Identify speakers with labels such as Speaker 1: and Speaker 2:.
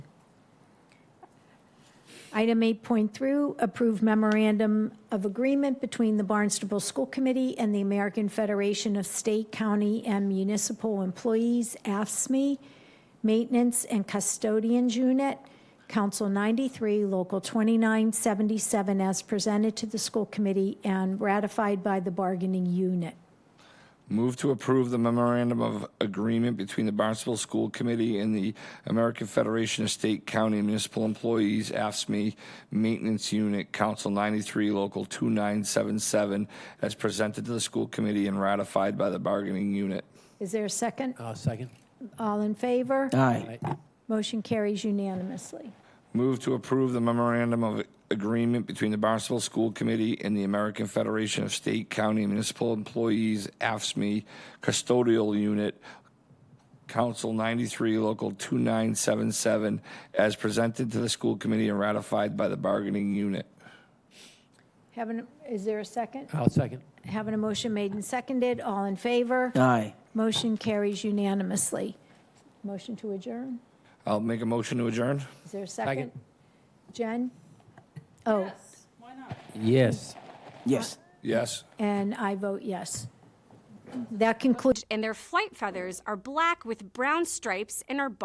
Speaker 1: Item 8.3, approve memorandum of agreement between the Barnstable School Committee and the American Federation of State, County, and Municipal Employees, AFSME, E, Maintenance and Custodians Unit, Council 93, Local 2977, as presented to the school committee and ratified by the bargaining unit.
Speaker 2: Move to approve the memorandum of agreement between the Barnstable School Committee and the American Federation of State, County, and Municipal Employees, AFSME E Maintenance Unit, Council 93, Local 2977, as presented to the school committee and ratified by the bargaining unit.
Speaker 1: Is there a second?
Speaker 3: Uh, second.
Speaker 1: All in favor?
Speaker 4: Aye.
Speaker 1: Motion carries unanimously.
Speaker 2: Move to approve the memorandum of agreement between the Barnstable School Committee and the American Federation of State, County, and Municipal Employees, AFSME E, Custodial Unit, Council 93, Local 2977, as presented to the school committee and ratified by the bargaining unit.
Speaker 1: Having, is there a second?
Speaker 3: I'll second.
Speaker 1: Having a motion made and seconded, all in favor?
Speaker 4: Aye.
Speaker 1: Motion carries unanimously. Motion to adjourn?
Speaker 2: I'll make a motion to adjourn.
Speaker 1: Is there a second? Jen? Oh,
Speaker 3: Yes.
Speaker 4: Yes.
Speaker 2: Yes.
Speaker 1: and I vote yes. That concludes
Speaker 5: and their flight feathers are black with brown stripes and are